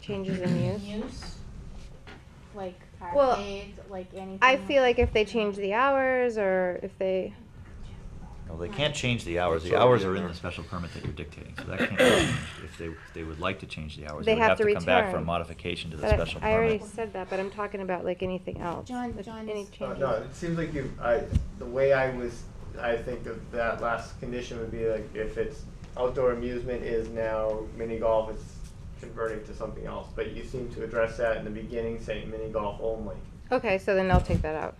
changes in use. use? Like Well, arcades, like anything? I feel like if they change the hours or if they, No, they can't change the hours. It's The hours already in are in there. the special permit that you're dictating, so that can't be changed. If they, if they would like to change the hours, They they would have have to to come back for a return. modification to the but I- special I already permit. said that, but I'm talking about like anything else. John- if John Any is- Uh, changes. no, it seems like you, I, the way I was, I think of that last condition would be like if it's outdoor amusement is now mini golf, it's converting to something else. But you seem to address that in the beginning, saying mini golf only. Okay, so then I'll take that out.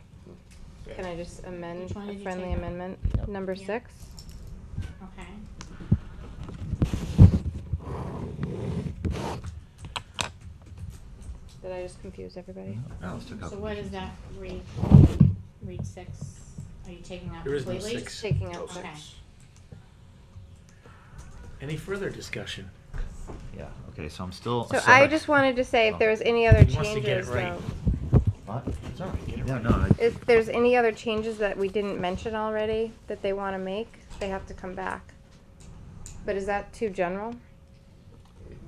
Yeah. Can I just amend, Which one a did you friendly take out? amendment, Yep. number Yeah. six? Okay. Did I just confuse everybody? No, let's take out So what conditions. does that read, read six, are you taking out There is no completely? six. Taking out Okay. six. Any further discussion? Yeah, okay, so I'm still. So I just wanted to say if there was any other Oh. He wants to get it changes, right. though. What? It's all right. Get it Yeah, right. no, I- If there's any other changes that we didn't mention already that they wanna make, they have to come back. But is that too general?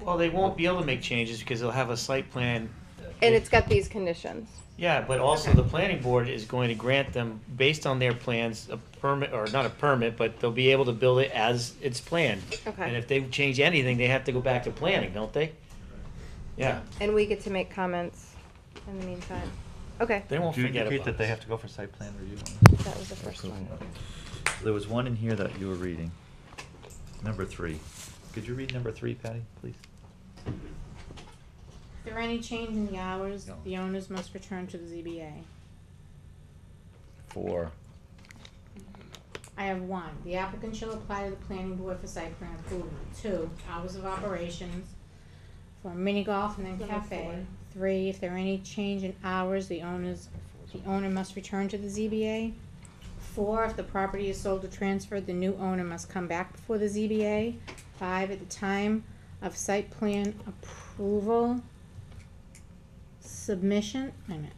Well, they won't be able to make changes because they'll have a site plan. And it's got these conditions. Yeah, but also the planning board is going to grant them, based on their plans, a permit, or not a permit, but they'll be able to build it as it's planned. Okay. And if they change anything, they have to go back to planning, don't they? Yeah, And we get to make comments in the meantime. Okay, they won't Do you forget indicate about that they us. have to go for site plan review? that was the first one. There was one in here that you were reading. Number three. Could you read number three, Patty, please? If there are any change in the hours, No. the owners must return to the ZBA. Four. I have one, the applicant shall apply to the planning board for site plan approval. Two, hours of operations for mini golf and then Number cafe. four. Three, if there are any change in hours, the owners, the owner must return to the ZBA. Four, if the property is sold or transferred, the new owner must come back before the ZBA. Five, at the time of site plan approval submission, wait a minute,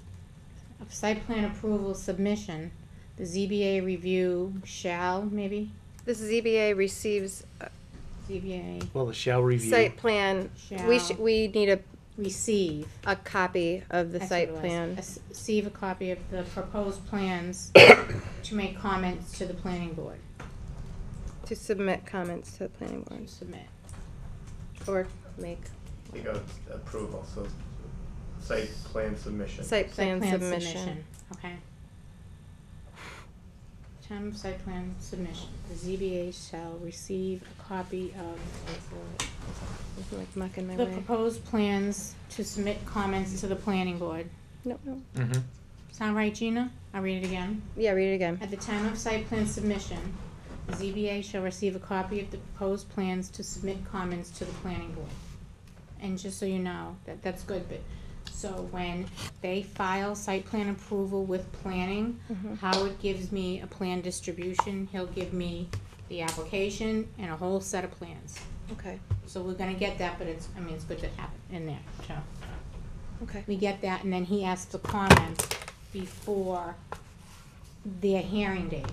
of site plan approval submission, the ZBA review shall, maybe, This ZBA receives uh, ZBA Well, the shall review. site plan, we Shall. should, we need a, receive. a copy of the That's site what it was. plan. As- Receive a copy of the proposed plans to make comments to the planning board, To submit comments to the planning to board submit. or make You go approval, so site plan submission. site Site plan submission. Okay. Time of site plan submission, the ZBA shall receive a copy of I'm like mucking my the way. proposed plans to submit comments to the planning board. No, no. Mhm. Sound right, Gina? I'll read it again. Yeah, read it again. At the time of site plan submission, the ZBA shall receive a copy of the proposed plans to submit comments to the planning board. And just so you know, that, that's good, but, so when they file site plan approval with planning, Mhm. Howard gives me a plan distribution, he'll give me the application and a whole set of plans. Okay, So we're gonna get that, but it's, I mean, it's good to have it in there, so. okay. We get that, and then he asks for comments before their hearing date.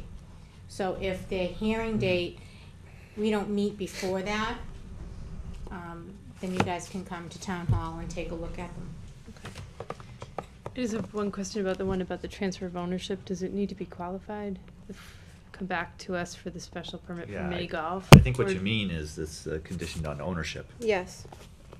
So if their hearing date, we don't meet before that, um, then you guys can come to town hall and take a look at them. I just have one question about the one about the transfer of ownership. Does it need to be qualified? Come back to us for the special permit for Yeah, I- mini golf? I think what Or- you mean is this uh, conditioned on ownership. Yes,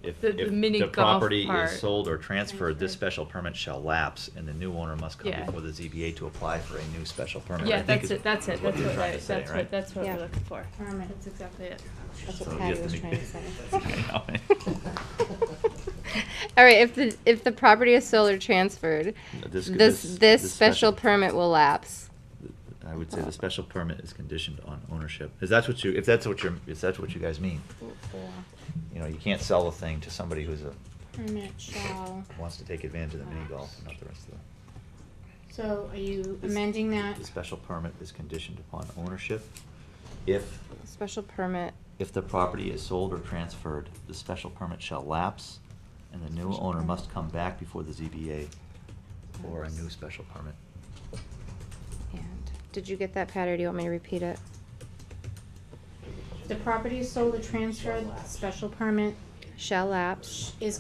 If, The- the if mini the golf property part. is sold or transferred, this Transferred. special permit shall lapse, and the new owner must come Yeah. before the ZBA to apply for a new special permit. I Yeah, think that's is- it, that's it, is what that's you're what, trying I- to say, that's right? what, that's what Yeah. we're looking for. Permit. That's exactly it. That's So what you Patty have was to trying make- to say. I know. All right, if the, if the property is sold or transferred, this, This- this- this this special special- permit will lapse. I would say the special permit is conditioned on ownership. Is that what you, if that's what you're, if that's what you guys mean? You know, you can't sell the thing to somebody who's a, Permit shall, wants to take advantage of the mini golf and not the rest of the. so are you amending that? The special permit is conditioned upon ownership. If, Special permit, if the property is sold or transferred, the special permit shall lapse and the new Special owner permit. must come back before the ZBA for a new special permit. and, did you get that, Pat, or do you want me to repeat it? The property is sold or transferred, special permit Shall lapse. is